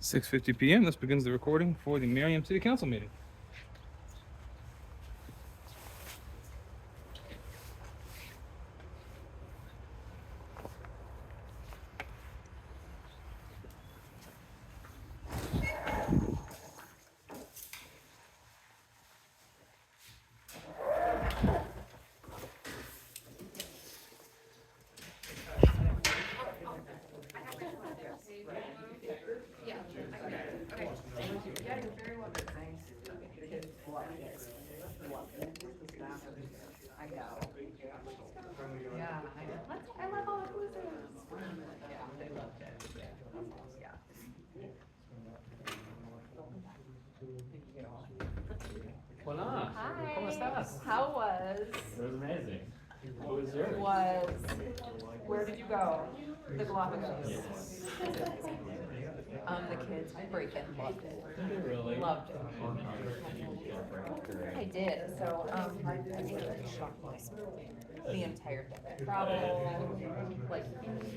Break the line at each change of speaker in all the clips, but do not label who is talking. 6:50 PM, this begins the recording for the Merriam City Council meeting.
I know. Yeah, I know.
I love all inclusive.
Yeah, they loved it, yeah. Yeah. You know,
Hola.
Hi.
¿Cómo estás?
How was,
It was amazing. What was yours?
was,
Where did you go? The Galapagos.
Yes.
Um, the kids freaking loved it.
Really?
Loved it.
I did,
So, um, I I think it shocked my soul the entire thing. Travel, like,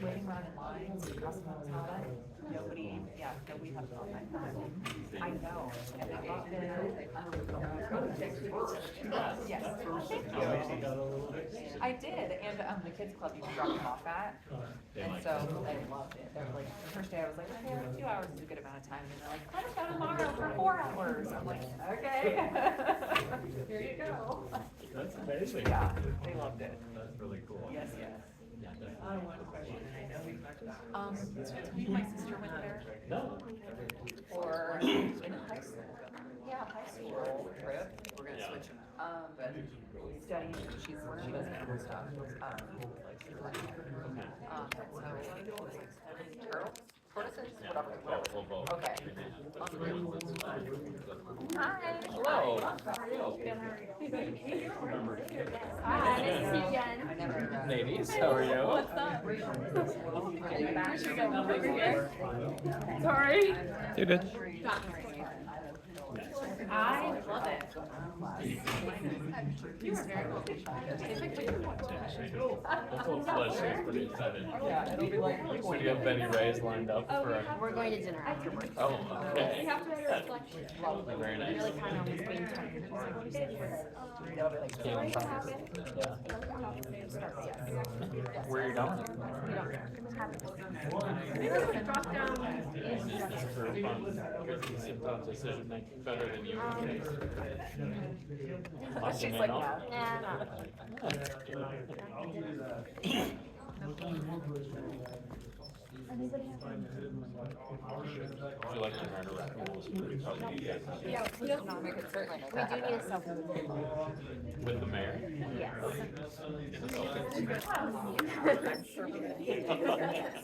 waiting around in lines, customers, all that. Nobody, yeah, no, we have all that time. I know. And I got there, um, Yes, thank you. I did, and, um, the kids club, you can drop them off at.
They
And
liked
so they loved it. They're like, the first day I was like, okay, like, two hours is a good amount of time. And they're like, let us go tomorrow for four hours. I'm like, okay. Here you go.
it. That's amazing.
Yeah, they loved it.
That's really cool.
Yes, yes.
Yeah, definitely.
Um, me and my sister went there
No.
for in high school. Yeah, high school trip. We're
Yeah.
gonna switch them. Um, but studying, she's, she doesn't have stuff. Um, um, so, turtles, tortoises, whatever, whatever.
Well, well,
Okay.
hi.
Hello. Hello.
Hi, nice to see
I
you again.
never. uh,
Ladies, how are you?
What's up? Where should we go? Over here? Sorry.
You're good.
I love it. You were very cool.
That's what Flesh is pretty excited.
Yeah, it'll be like.
So do you have Benny Ray's lined up
Oh, we
for?
have-
a-
We're going to dinner afterwards.
Oh,
We
okay.
have to make a reflection.
Lovely, very nice.
Really kind of was being tired.
They'll be like.
Yeah.
What happened?
Yeah. Where are you going?
Everyone dropped down.
Is this for fun? Because it's about decision making better than you. Lock
She's
them in
like,
all?
"No."
Yeah.
Would you like to learn around?
Yeah, we don't know.
We could certainly make
We
that
do need a
happen.
cell phone.
With the mayor?
Yes.
I'm sure we could. Yes.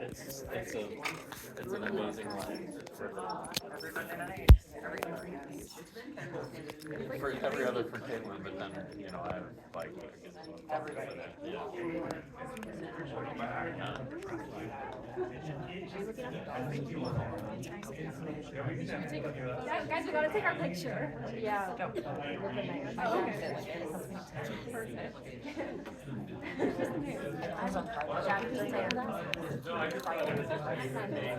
It's, it's a, it's an amazing life.
Every Monday night, every Monday night.
For every other for Caitlin, but then, you know, I have like. a good one.
Everybody.
Yeah.
Yeah, Guys, we gotta take our picture.
Yeah.
I don't get it, like,
Perfect.
I was on Friday.
Jackie's there.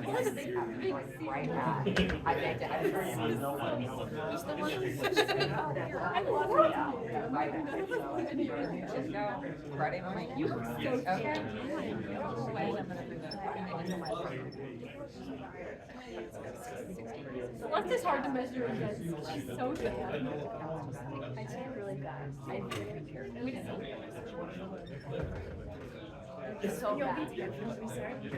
Look at the big sea.
Right back. I begged it. I was like, "No, no, no, no."
I love it.
I begged it. So I didn't do anything. Just go Friday morning. You were so okay. No way.
Lust is hard to measure against. She's so good. I did really bad. I did. We didn't. It's so bad.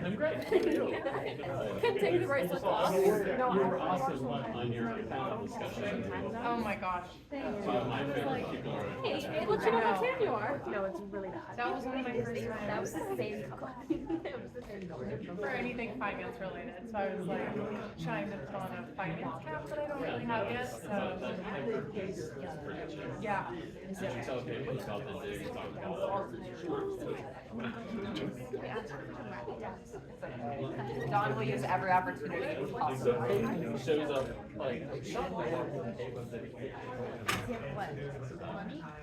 I'm great.
Couldn't take the bracelet off. No,
You were
I.
awesome on on your panel discussion.
Oh my gosh.
Two of my favorite people are.
Hey, it looks like how tan you are.
No, it's really bad.
That was one of my first times.
That was the same color.
for anything finance related, so I was like trying to put on a finance cap that I don't really have yet, so. Yeah.
You tell people about the day you talk about.
Dawn will use every opportunity possible.
Someone Shows up like. "Shut the fuck up."